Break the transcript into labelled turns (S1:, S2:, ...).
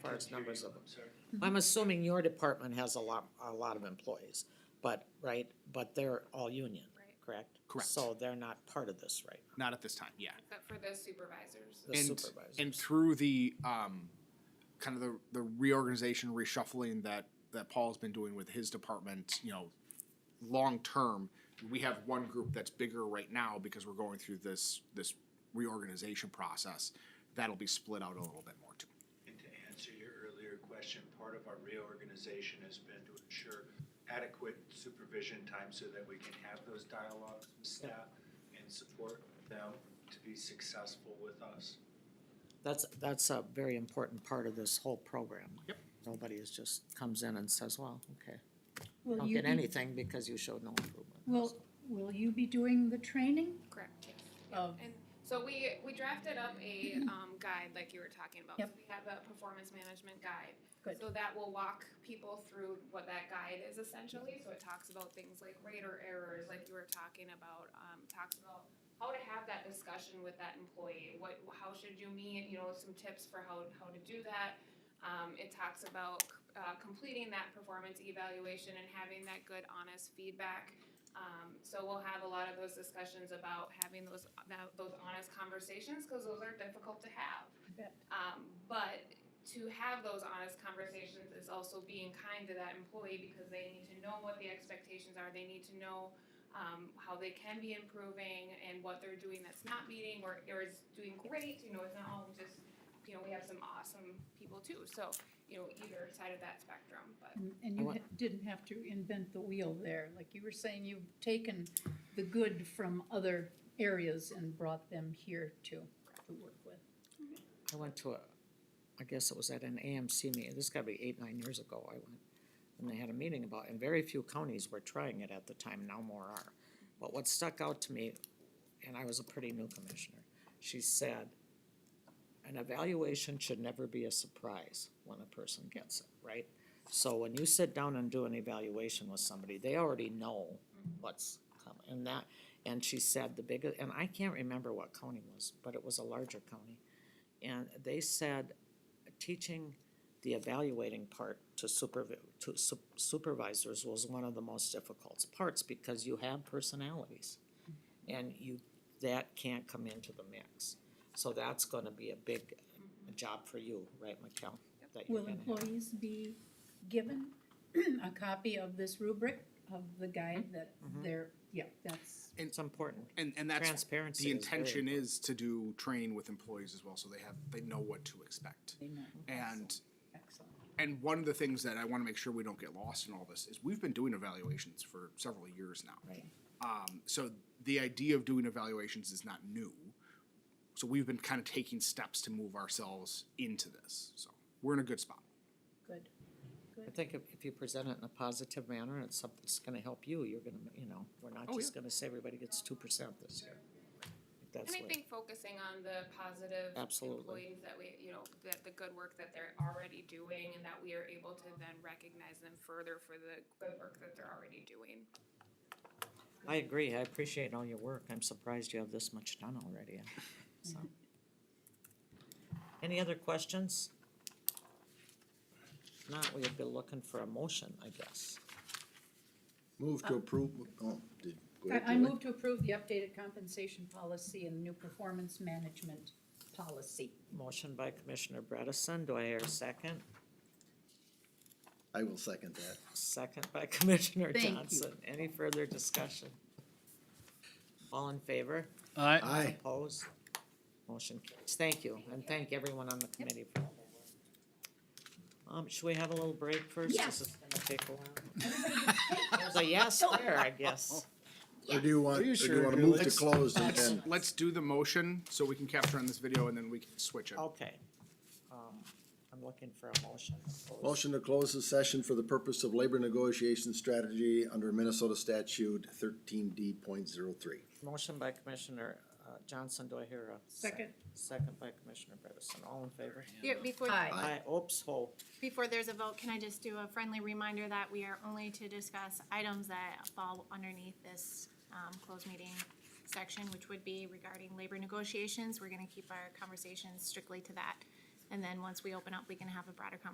S1: far as numbers of
S2: I'm sorry.
S1: I'm assuming your department has a lot, a lot of employees, but, right, but they're all union,
S3: Right.
S1: correct?
S4: Correct.
S1: So they're not part of this right now,
S4: Not at this time, yeah.
S3: Except for the supervisors.
S1: the
S4: And,
S1: supervisors.
S4: and through the, um, kind of the, the reorganization, reshuffling that, that Paul's been doing with his department, you know, long-term, we have one group that's bigger right now because we're going through this, this reorganization process. That'll be split out a little bit more too.
S2: And to answer your earlier question, part of our reorganization has been to ensure adequate supervision time so that we can have those dialogues with staff and support them to be successful with us.
S1: That's, that's a very important part of this whole program.
S4: Yep.
S1: Nobody is just comes in and says, well, okay,
S5: Will
S1: don't
S5: you
S1: get
S5: be,
S1: anything because you showed no improvement.
S5: will, will you be doing the training?
S3: Correct.
S5: Of-
S3: And so we, we drafted up a, um, guide like you were talking about. So
S5: Yep.
S3: We have a performance management guide.
S5: Good.
S3: So that will walk people through what that guide is essentially. So it talks about things like rate or errors, like you were talking about, um, talks about how to have that discussion with that employee. What, how should you meet, you know, some tips for how, how to do that. Um, it talks about, uh, completing that performance evaluation and having that good, honest feedback. Um, so we'll have a lot of those discussions about having those, that, those honest conversations, cause those are difficult to have.
S5: bet.
S3: Um, but to have those honest conversations is also being kind to that employee because they need to know what the expectations are, they need to know, um, how they can be improving and what they're doing that's not meeting or, or is doing great, you know, it's not all just, you know, we have some awesome people too, so, you know, either side of that spectrum, but.
S5: And- um, And
S1: I
S5: you
S1: want-
S5: ha- didn't have to invent the wheel there, like you were saying, you've taken the good from other areas and brought them here to, to work with.
S1: I went to a, I guess it was at an AMC meeting, this gotta be eight, nine years ago I went. And they had a meeting about, and very few counties were trying it at the time, now more are. But what stuck out to me, and I was a pretty new commissioner, she said, an evaluation should never be a surprise when a person gets it, right? So when you sit down and do an evaluation with somebody, they already know what's coming, and that, and she said the biggest, and I can't remember what county was, but it was a larger county. And they said, teaching the evaluating part to supervi- to su- supervisors was one of the most difficult parts because you have personalities. And you, that can't come into the mix. So that's gonna be a big job for you, right, Mikel? That you're
S5: Will
S1: gonna have.
S5: employees be given a copy of this rubric of the guide that
S1: Mm-hmm.
S5: they're, yeah, that's,
S1: It's important.
S4: And, and that's,
S1: Transparency
S4: the
S1: is very
S4: intention is to do training with employees as well, so they have, they know what to expect.
S5: they know.
S4: And
S5: Excellent.
S4: and one of the things that I want to make sure we don't get lost in all this is we've been doing evaluations for several years now.
S1: Right.
S4: Um, so the idea of doing evaluations is not new. So we've been kind of taking steps to move ourselves into this. So we're in a good spot.
S5: Good.
S1: I think if, if you present it in a positive manner, and it's something that's gonna help you, you're gonna, you know, we're not
S4: Oh,
S1: just gonna say everybody gets two percent this year. That's
S3: And I
S1: what-
S3: think focusing on the positive
S1: Absolutely.
S3: employees that we, you know, that the good work that they're already doing and that we are able to then recognize them further for the good work that they're already doing.
S1: I agree, I appreciate all your work, I'm surprised you have this much done already, so. Any other questions? If Not, we'll be looking for a motion, I guess.
S6: Move to approve, oh, did. go ahead,
S5: Uh, I, I
S6: Julie.
S5: move to approve the updated compensation policy and new performance management policy.
S1: Motion by Commissioner Bredesen, do I hear a second?
S6: I will second that.
S1: Second by Commissioner
S5: Thank you.
S1: Johnson, any further discussion? All in favor?
S6: Aye.
S1: Opposed? Motion carries. Thank you, and thank everyone on the committee for all their work. Um, should we have a little break first?
S5: Yes.
S1: This is gonna take a while. There's a yes there, I guess.
S6: Or do you want,
S4: Are
S6: or
S4: you
S6: do
S4: sure,
S6: you wanna move to
S4: Julie?
S6: close and
S4: Let's,
S6: then,
S4: let's do the motion so we can capture on this video and then we can switch it.
S1: Okay. Um, I'm looking for a motion.
S6: motion to close the session for the purpose of labor negotiation strategy under Minnesota statute thirteen D point zero three.
S1: Motion by Commissioner uh, Johnson, do I hear a?
S5: Second.
S1: Second by Commissioner Bredesen, all in favor?
S7: Yeah, before,
S5: Aye.
S1: Aye, oops, hold.
S7: before there's a vote, can I just do a friendly reminder that we are only to discuss items that fall underneath this um, closed meeting section, which would be regarding labor negotiations. We're gonna keep our conversations strictly to that. And then once we open up, we can have a broader conversation